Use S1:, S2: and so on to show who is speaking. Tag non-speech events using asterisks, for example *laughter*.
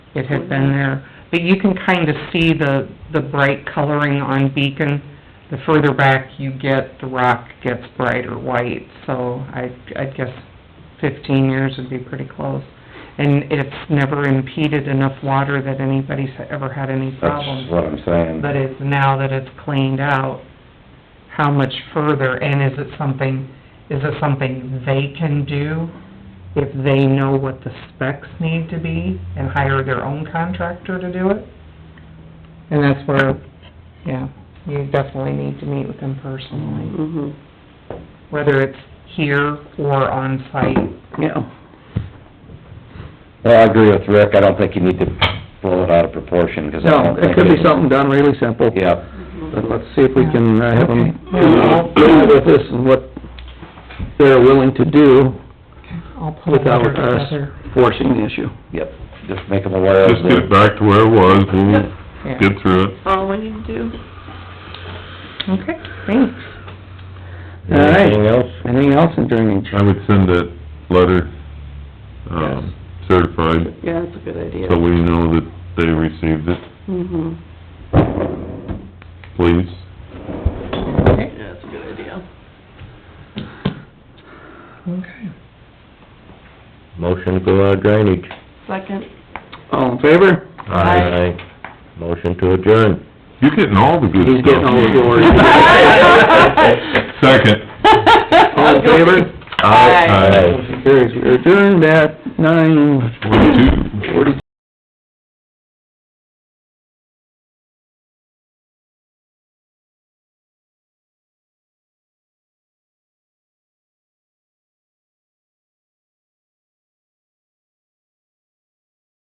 S1: It had been there, but you can kind of see the, the bright coloring on Beacon. The further back you get, the rock gets brighter white, so I, I guess fifteen years would be pretty close. And it's never impeded enough water that anybody's ever had any problems.
S2: That's what I'm saying.
S1: But it's now that it's cleaned out, how much further, and is it something, is it something they can do? If they know what the specs need to be and hire their own contractor to do it? And that's where, yeah, you definitely need to meet with them personally,
S3: Mm-hmm.
S4: Mhm.
S1: whether it's here or on site.
S4: Yeah.
S2: Well, I agree with Rick, I don't think you need to blow it out of proportion, because I
S4: No,
S2: don't think...
S4: it could be something done really simple.
S2: Yeah,
S4: But let's see if we can uh, have them
S1: Okay.
S4: deal with this and what they're willing to do
S1: I'll pull a letter
S4: without us
S1: together.
S4: forcing the issue.
S2: yep, just make them aware of
S5: Just get it
S2: the...
S5: back to where it was,
S4: *laughs*
S5: we'll
S1: Yeah.
S5: get through it.
S3: all we need to Oh, do.
S1: Okay, thanks.
S4: All right.
S2: Anything else?
S4: Anything else in drainage?
S5: I would send that letter, um, certified,
S3: Yeah, that's a good idea.
S5: so we know that they received it,
S3: Mm-hmm.
S5: please.
S1: Okay.
S3: Yeah, that's a good idea.
S1: Okay.
S2: Motion to go out drainage.
S3: *laughs* Second.
S4: All in favor?
S2: Aye. Motion to adjourn.
S5: You're getting all the good stuff.
S4: He's getting all the glory.
S5: *laughs*
S4: *laughs*
S5: Second.
S4: All in favor?
S5: Aye.
S4: Motion carries. We're adjourned at nine
S5: Forty-two.
S4: forty.